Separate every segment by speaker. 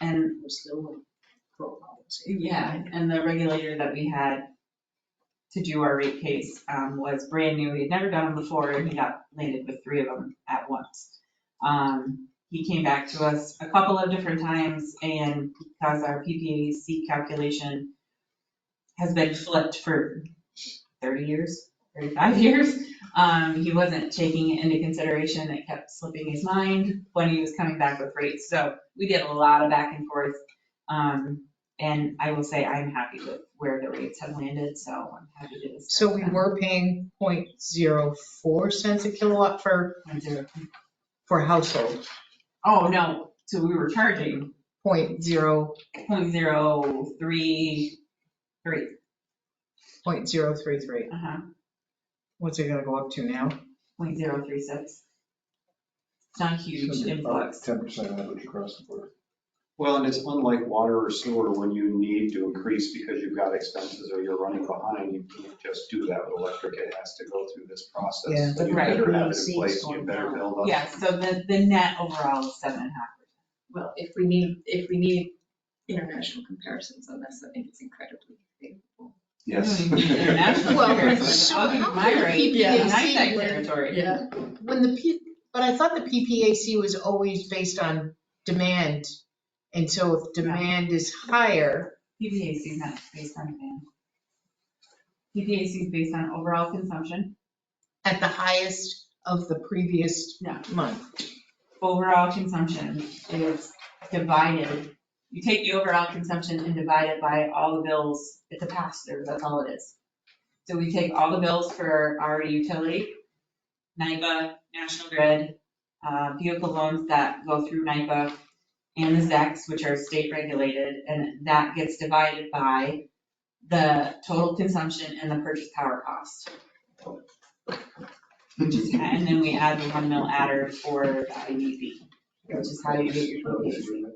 Speaker 1: And
Speaker 2: We're still in pro policy.
Speaker 1: yeah, and the regulator that we had to do our rate case um, was brand new. He had never done them before and he got landed with three of them at once. Um, He came back to us a couple of different times and because our PPAC E calculation has been flipped for 30 years, 35 years, um, he wasn't taking it into consideration. It kept slipping his mind when he was coming back with rates. So we did a lot of back and forth. Um, and I will say I'm happy with where the rates have landed, so I'm happy to discuss
Speaker 2: So we
Speaker 1: them.
Speaker 2: were paying 0.04 cents a kilowatt for,
Speaker 1: Went through.
Speaker 2: for household,
Speaker 1: Oh, no, so we were charging
Speaker 2: 0.0
Speaker 1: point zero three three,
Speaker 2: 0.033.
Speaker 1: uh-huh,
Speaker 2: What's it gonna go up to now?
Speaker 1: point zero three six. It's not a huge influx.
Speaker 3: Ten percent average across the board.
Speaker 4: Well, and it's unlike water or sewer when you need to increase because you've got expenses or you're running behind. You can't just do that with electric. It has to go through this process.
Speaker 2: Yeah.
Speaker 4: So You
Speaker 1: Right.
Speaker 4: better have it in
Speaker 5: Seems
Speaker 4: place. You
Speaker 5: going
Speaker 4: better
Speaker 5: down.
Speaker 4: build up.
Speaker 1: Yeah, so the, the net overall is seven and a half.
Speaker 5: Well, if we need, if we need international comparisons on this, I think it's incredibly favorable.
Speaker 4: Yes.
Speaker 1: Doing international
Speaker 2: Well,
Speaker 1: comparisons,
Speaker 2: so
Speaker 1: I'll give you
Speaker 2: how
Speaker 1: my
Speaker 2: could
Speaker 1: rate,
Speaker 2: PPAC
Speaker 1: and I'm that
Speaker 2: win?
Speaker 1: territory.
Speaker 5: Yeah.
Speaker 2: When the P, but I thought the PPAC was always based on demand. And so if demand is higher,
Speaker 1: PPAC is not based on demand. PPAC is based on overall consumption,
Speaker 2: at the highest of the previous
Speaker 1: Yeah.
Speaker 2: month.
Speaker 1: overall consumption is divided. You take the overall consumption and divide it by all the bills, it's a pass-through, that's all it is. So we take all the bills for our utility, NIPA, National Grid, uh, vehicle loans that go through NIPA, and the ZECs, which are state regulated, and that gets divided by the total consumption and the purchase power cost. Which is, and then we add the one mil adder for the IDP, which is how you get your PPAC.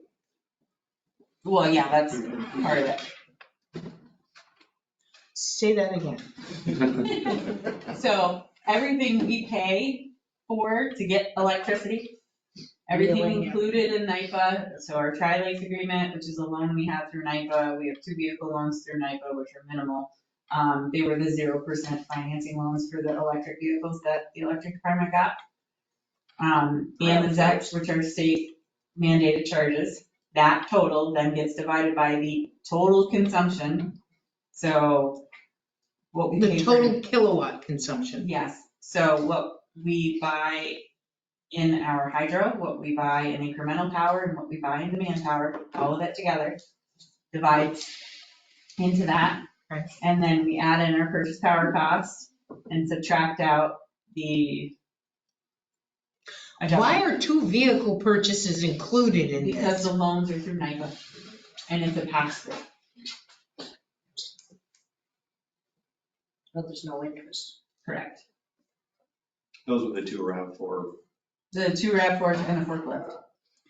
Speaker 1: Well, yeah, that's part of
Speaker 2: Say that again.
Speaker 1: it. So everything we pay for to get electricity, everything
Speaker 5: Really?
Speaker 1: included in NIPA, so our tri-lakes agreement, which is a loan we have through NIPA, we have two vehicle loans through NIPA, which are minimal. Um, they were the zero percent financing loans for the electric vehicles that the electric department got. Um, and the ZECs, which are state mandated charges, that total then gets divided by the total consumption. So what we pay
Speaker 2: The
Speaker 1: for.
Speaker 2: total kilowatt consumption.
Speaker 1: Yes, so what we buy in our hydro, what we buy in incremental power, and what we buy in demand power, all of it together divides into that.
Speaker 2: Okay.
Speaker 1: And then we add in our purchase power cost and subtract out the
Speaker 2: Why
Speaker 1: adjustment.
Speaker 2: are two vehicle purchases included in
Speaker 1: Because
Speaker 2: this?
Speaker 1: the loans are through NIPA, and it's a pass through.
Speaker 5: But there's no interest.
Speaker 1: Correct.
Speaker 4: Those were the two around for,
Speaker 1: The two RAV4s and the forklift.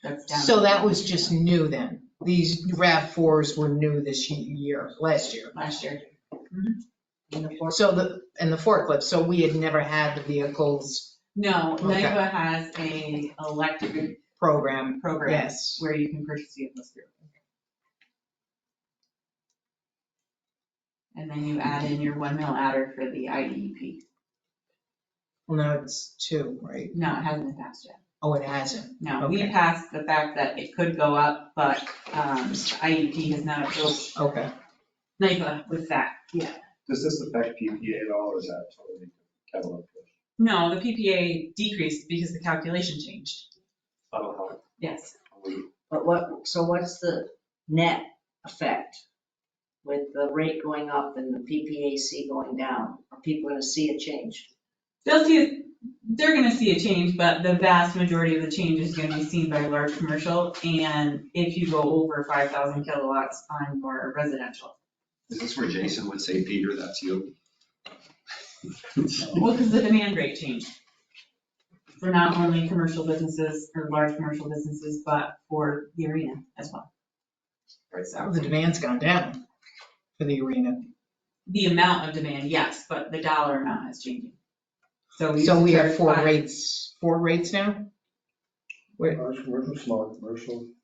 Speaker 1: That's down.
Speaker 2: So that was just new then. These RAV4s were new this year, last year.
Speaker 1: Last year.
Speaker 5: in the form.
Speaker 2: So the, and the forklift, so we had never had the vehicles
Speaker 1: No,
Speaker 2: Okay.
Speaker 1: NIPA has a electric
Speaker 2: program,
Speaker 1: program
Speaker 2: yes.
Speaker 1: where you can purchase vehicles through. And then you add in your one mil adder for the E IDEP.
Speaker 2: Well, now it's two, right?
Speaker 1: No, it hasn't been passed yet.
Speaker 2: Oh, it hasn't.
Speaker 1: No, we
Speaker 2: Okay.
Speaker 1: passed the fact that it could go up, but um, IDEP has not approved
Speaker 2: Okay.
Speaker 1: NIPA with that.
Speaker 4: does this affect PPA at all or is that totally kettle of fish?
Speaker 1: No, the PPA decreased because the calculation changed.
Speaker 4: I don't know.
Speaker 1: Yes.
Speaker 5: But what, so what's the net effect with the rate going up and the PPAC going down? Are people gonna see a change?
Speaker 1: They'll see, they're gonna see a change, but the vast majority of the change is gonna be seen by large commercial and if you go over five thousand kilowatts on your residential.
Speaker 4: Is this where Jason would say, Peter, that's you?
Speaker 1: Well, because the demand rate changed for not only commercial businesses or large commercial businesses, but for the arena as well.
Speaker 2: So The demand's gone down for the arena.
Speaker 1: The amount of demand, yes, but the dollar amount is changing. So we.
Speaker 2: So we have
Speaker 1: charge
Speaker 2: four
Speaker 1: five-
Speaker 2: rates, four rates now?
Speaker 3: Large commercial, small commercial,